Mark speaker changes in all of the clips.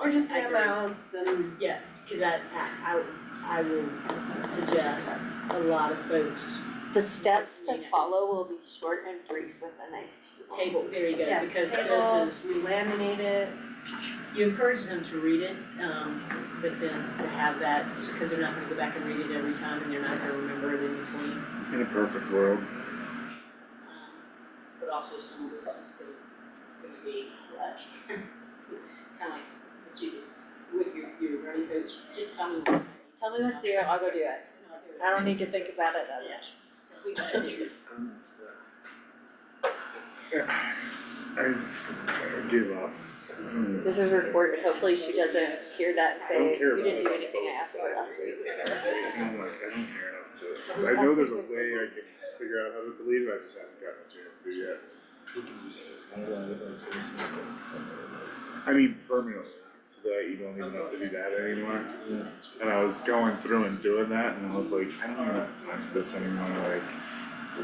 Speaker 1: Or just the amounts and.
Speaker 2: Yeah, cause I, I, I I will suggest a lot of folks
Speaker 3: The steps to follow will be short and brief with a nice table.
Speaker 2: table, there you go,
Speaker 1: Yeah,
Speaker 2: because this
Speaker 1: table,
Speaker 2: is,
Speaker 1: we laminate it.
Speaker 2: you encourage them to read it, um, but then to have that, cause they're not gonna go back and read it every time and they're not gonna remember it in between.
Speaker 4: In a perfect world,
Speaker 2: Um, But also some of this is gonna, gonna be like, kinda like, it's usually with your, your running coach, just tell me what.
Speaker 3: Tell me what to do, I'll go do it. I don't need to think about it that
Speaker 2: Yeah,
Speaker 3: much.
Speaker 2: just tell me what to do.
Speaker 4: I just I give up. Mm.
Speaker 3: This is recorded, hopefully she doesn't hear that and
Speaker 4: I don't
Speaker 3: say,
Speaker 4: care
Speaker 3: you
Speaker 4: about
Speaker 3: didn't do
Speaker 4: it.
Speaker 3: anything I asked for last week.
Speaker 4: I'm like, I don't care enough to, 'cause I know there's a way I can figure out how to believe, I just haven't gotten a chance to yet. I mean permanently, so that you don't even have to do that anymore. And I was going through and doing that and I was like, I don't even have time for this anymore, like. I,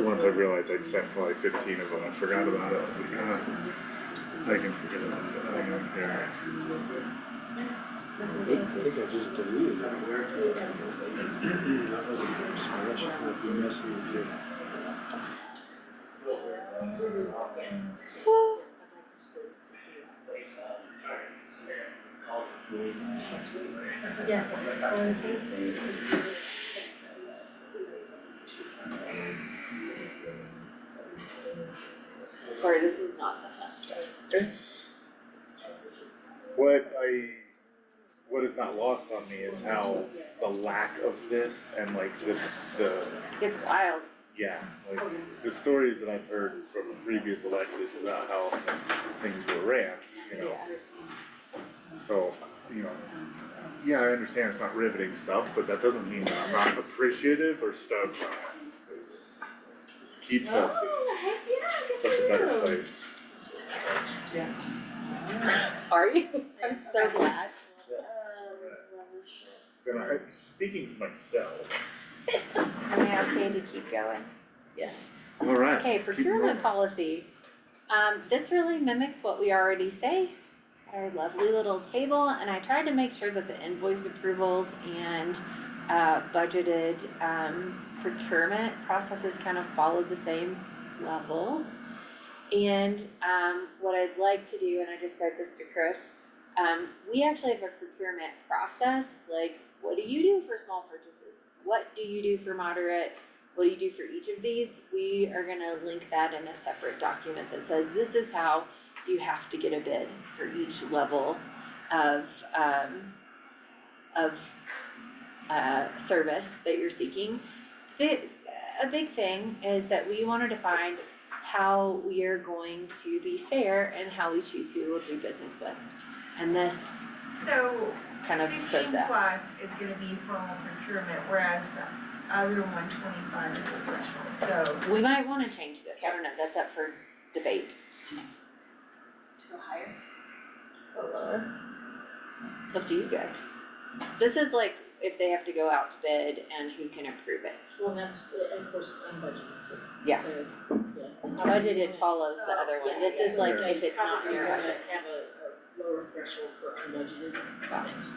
Speaker 4: once I realized I'd sent probably fifteen of them, I forgot about it, I was like, ah, I can forget about it, I don't care.
Speaker 5: I think I just deleted it. That wasn't very smart, I should have been messing with you.
Speaker 1: Yeah.
Speaker 3: Oh, Sorry, this is not the fun stuff.
Speaker 4: It's what I what is not lost on me is how the lack of this and like the the
Speaker 3: It's wild.
Speaker 4: yeah, like the stories that I've heard from the previous electeds about how things were ran, you know. So, you know, yeah, I understand it's not riveting stuff, but that doesn't mean that I'm not appreciative or stoked on it. This this keeps us
Speaker 3: Oh,
Speaker 4: in such a better place.
Speaker 3: Are you? I'm so glad.
Speaker 4: And I, speaking for myself,
Speaker 3: Am I okay to keep going?
Speaker 4: Alright.
Speaker 3: Okay, procurement policy. Um, this really mimics what we already say at our lovely little table, and I tried to make sure that the invoice approvals and uh, budgeted um, procurement processes kind of followed the same levels. And um, what I'd like to do, and I just said this to Chris, um, we actually have a procurement process, like what do you do for small purchases? What do you do for moderate? what do you do for each of these? We are gonna link that in a separate document that says this is how you have to get a bid for each level of um of uh service that you're seeking. Bi- a big thing is that we wanted to find how we are going to be fair and how we choose who we'll do business with. And this
Speaker 6: So
Speaker 3: kind of says
Speaker 6: fifteen
Speaker 3: that.
Speaker 6: plus is gonna be formal procurement, whereas the other one twenty-five is the threshold, so.
Speaker 3: We might wanna change this, I don't know, that's up for debate.
Speaker 1: To higher.
Speaker 3: It's up to you guys. This is like if they have to go out to bid and who can approve it.
Speaker 2: Well, that's, uh, of course, unbudgeted too.
Speaker 3: Yeah.
Speaker 2: So, yeah.
Speaker 3: Budgeted follows the other
Speaker 2: Yeah,
Speaker 3: one. This is
Speaker 2: yeah,
Speaker 3: like
Speaker 2: so
Speaker 3: if it's not
Speaker 2: Probably
Speaker 3: your
Speaker 2: gonna
Speaker 3: budget.
Speaker 2: have a, a lower threshold for unbudgeted
Speaker 3: Got
Speaker 2: things.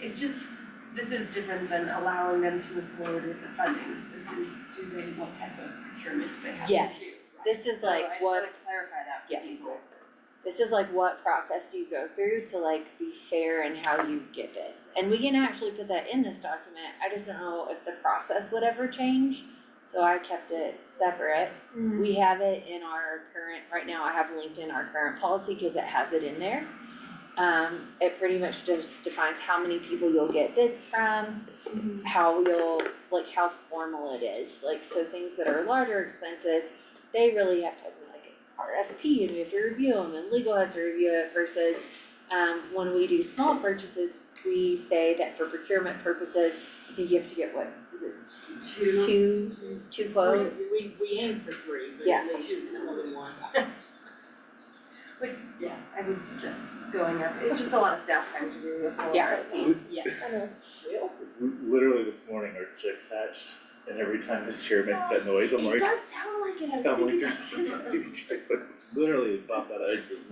Speaker 1: It's just, this is different than allowing them to move forward with the funding. This is, do they, what type of procurement do they have to do?
Speaker 3: Yes. This is
Speaker 1: So I
Speaker 3: like
Speaker 1: just
Speaker 3: what,
Speaker 1: wanna clarify that for
Speaker 3: Yes.
Speaker 1: people.
Speaker 3: this is like what process do you go through to like be fair in how you get bids? And we can actually put that in this document. I just don't know if the process would ever change. So I kept it separate. We have it in our current, right now I have linked in our current policy because it has it in there. Um, it pretty much just defines how many people you'll get bids from, how you'll, like how formal it is, like so things that are larger expenses, they really have to have like an RFP and we have to review them and legal has to review it versus um, when we do small purchases, we say that for procurement purposes, I think you have to get what, is it
Speaker 2: Two.
Speaker 3: two, two quotes?
Speaker 2: We- We, we aim for three, but
Speaker 3: Yeah.
Speaker 2: at least only one.
Speaker 1: I would suggest going up, it's just a lot of staff time to do a full
Speaker 3: Yeah.
Speaker 1: RFPs.
Speaker 2: Yes.
Speaker 4: Literally this morning, our chicks hatched, and every time this chair makes that noise, I'm like,
Speaker 1: does sound like it, I
Speaker 4: I'm like, there's a baby chick, like, literally popped out of eggs this